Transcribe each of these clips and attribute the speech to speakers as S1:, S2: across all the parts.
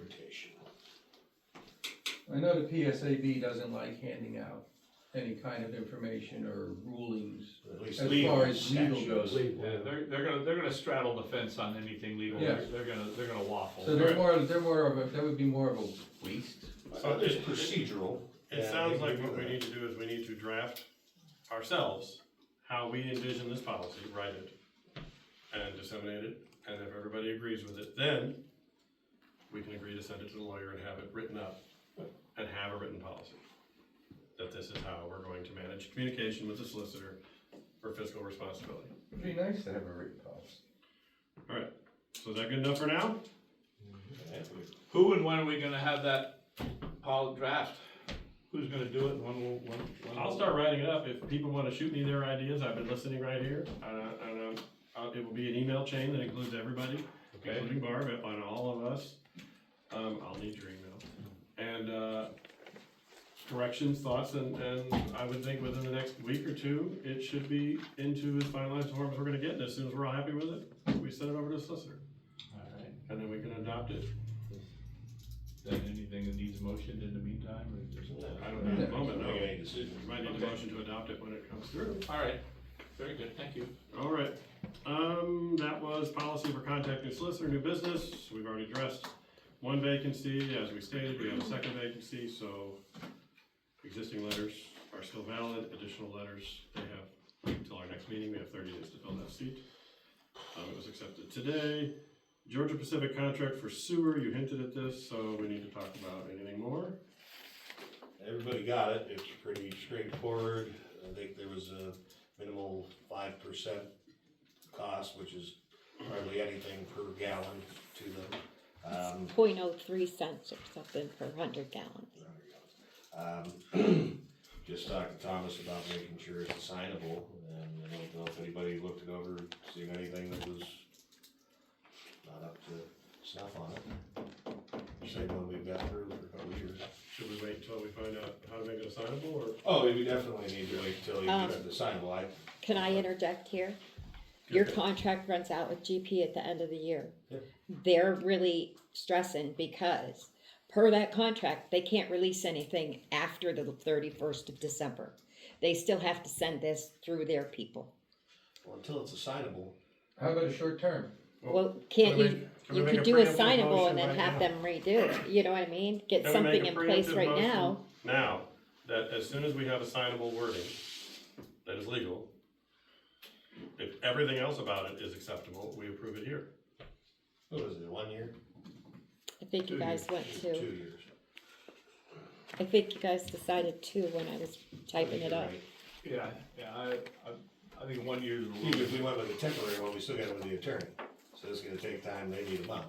S1: interpretation.
S2: I know the PSAB doesn't like handing out any kind of information or rulings.
S1: At least
S2: As
S1: legal
S2: far as legal
S1: statute.
S2: goes.
S3: Yeah, they're, they're gonna, they're gonna straddle the fence on anything legal, they're,
S2: Yes.
S3: they're gonna, they're gonna waffle.
S2: So they're more, they're more of a, that would be more of a waste.
S1: Uh, There's procedural.
S4: It sounds like what we need to do is we need to draft ourselves how we envision this policy, write it, and disseminate it, and if everybody agrees with it, then we can agree to send it to the lawyer and have it written up, and have a written policy. That this is how we're going to manage communication with the solicitor for fiscal responsibility.
S2: It'd be nice to have a written policy.
S4: Alright, so is that good enough for now?
S3: Who and when are we gonna have that pol draft? Who's gonna do it, when will, when? when-
S4: I'll start writing it up, if people wanna shoot me their ideas, I've been listening right here, and, uh, and, um, uh, it will be an email chain that includes everybody.
S3: Okay,
S4: including Barb on all of us. Um, I'll need your email. And, uh, corrections, thoughts, and, and I would think within the next week or two, it should be into as finalized form as we're gonna get, and as soon as we're all happy with it, we send it over to the solicitor,
S3: alright,
S4: and then we can adopt it.
S3: then anything that needs motion in the meantime, or just?
S4: I don't know at the moment, no.
S1: Make
S4: We
S1: any decision.
S4: might need a motion to adopt it when it comes through.
S3: Alright, very good, thank you.
S4: All right, um, that was policy for contacting solicitor, new business, we've already addressed one vacancy, as we stated, we have a second vacancy, so existing letters are still valid, additional letters, they have, until our next meeting, we have thirty days to fill that seat. Um, it was accepted today, Georgia Pacific contract for sewer, you hinted at this, so we need to talk about anything more.
S1: Everybody got it, it's pretty straightforward, I think there was a minimal five percent cost, which is hardly anything per gallon to them. Um,
S5: point oh three cents or something per hundred gallons.
S1: Um, Just talked to Thomas about making sure it's assignable, and I don't know if anybody looked it over, seen anything that was not up to snuff on it. Same one we've got through for a couple of years.
S4: Should we wait until we find out how to make it assignable, or?
S1: Oh, we definitely need to wait till you
S5: Um,
S1: get the assignable, I,
S5: Can I interject here? Your contract runs out with GP at the end of the year.
S1: Yeah.
S5: They're really stressing because per that contract, they can't release anything after the thirty-first of December. They still have to send this through their people.
S1: well, until it's assignable,
S2: How about a short term?
S5: Well, can't you,
S4: Can we
S5: you
S4: make
S5: could
S4: a
S5: do
S4: preemptive
S5: assignable
S4: motion
S5: and then
S4: right
S5: have
S4: now?
S5: them redo it, you know what I mean? Get
S4: Can we make
S5: something
S4: a
S5: in place
S4: preemptive
S5: right
S4: motion
S5: now.
S4: Now, that as soon as we have assignable wording that is legal, if everything else about it is acceptable, we approve it here.
S1: what was it, one year?
S5: I think you
S1: Two
S5: guys
S1: years.
S5: went
S1: Two
S5: to,
S1: years.
S5: I think you guys decided two when I was typing it up.
S1: Right.
S3: Yeah, yeah, I, I, I think one year's a
S1: Even
S3: little
S1: if we went with a temporary one, we still got it with the attorney, so it's gonna take time, they need a month,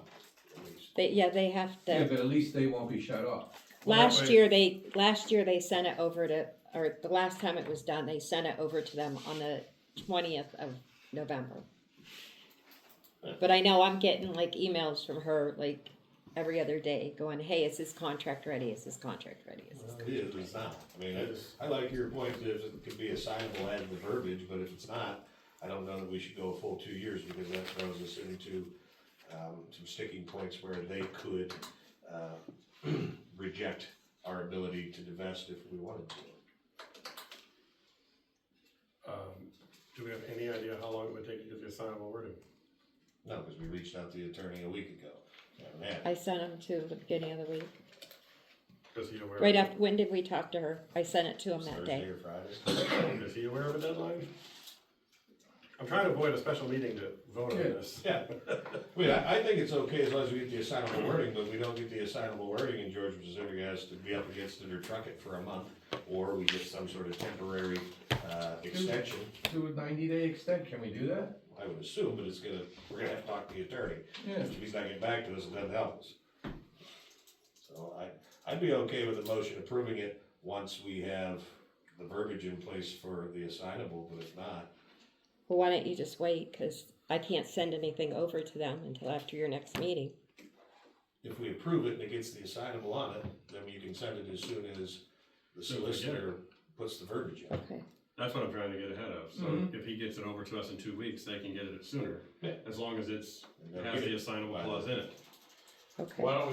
S1: at least.
S5: They, yeah, they have
S2: Yeah,
S5: to,
S2: but at least they won't be shut off.
S4: Well, that
S5: last
S4: way-
S5: year they, last year they sent it over to, or the last time it was done, they sent it over to them on the twentieth of November. But I know I'm getting like emails from her like every other day going, hey, is this contract ready? Is this contract ready? Is this
S1: Well, It is, it's not, I mean, it's, I like your point, that it could be assignable as the verbiage, but if it's not, I don't know that we should go a full two years, because that throws us into, um, some sticking points where they could, uh, reject our ability to divest if we wanted to.
S4: Um, Do we have any idea how long it would take to get the assignable wording?
S1: No, because we reached out to the attorney a week ago, haven't had it.
S5: I sent them to the beginning of the week.
S4: Is he aware? of
S5: Right
S4: it?
S5: after, when did we talk to her? I sent it to them that
S1: Thursday
S5: day.
S1: or Friday.
S4: Is he aware of a deadline? I'm trying to avoid a special meeting to vote on
S2: Yeah.
S4: this.
S1: Yeah, wait, I, I think it's okay as long as we get the assignable wording, but we don't get the assignable wording and George Pacific has to be up against it or truck it for a month, or we get some sort of temporary, uh, extension,
S2: Do a ninety day extent, can we do that?
S1: I would assume, but it's gonna, we're gonna have to talk to the attorney.
S2: Yeah.
S1: If he's not getting back to us, it doesn't help us. So I, I'd be okay with the motion approving it once we have the verbiage in place for the assignable, but if not,
S5: Well, why don't you just wait? Because I can't send anything over to them until after your next meeting.
S1: if we approve it and it gets the assignable on it, then you can send it as soon as the
S4: Soon as we get it.
S1: solicitor puts the verbiage in.
S5: Okay.
S4: That's what I'm trying to get ahead of, so
S2: Mhm.
S4: if he gets it over to us in two weeks, they can get it sooner.
S1: Yeah.
S4: As long as it's,
S1: And
S4: it
S1: they'll
S4: has
S1: get
S4: the
S1: it
S4: assignable
S1: by
S4: clause in
S1: then.
S4: it.
S5: Okay.
S3: Why don't we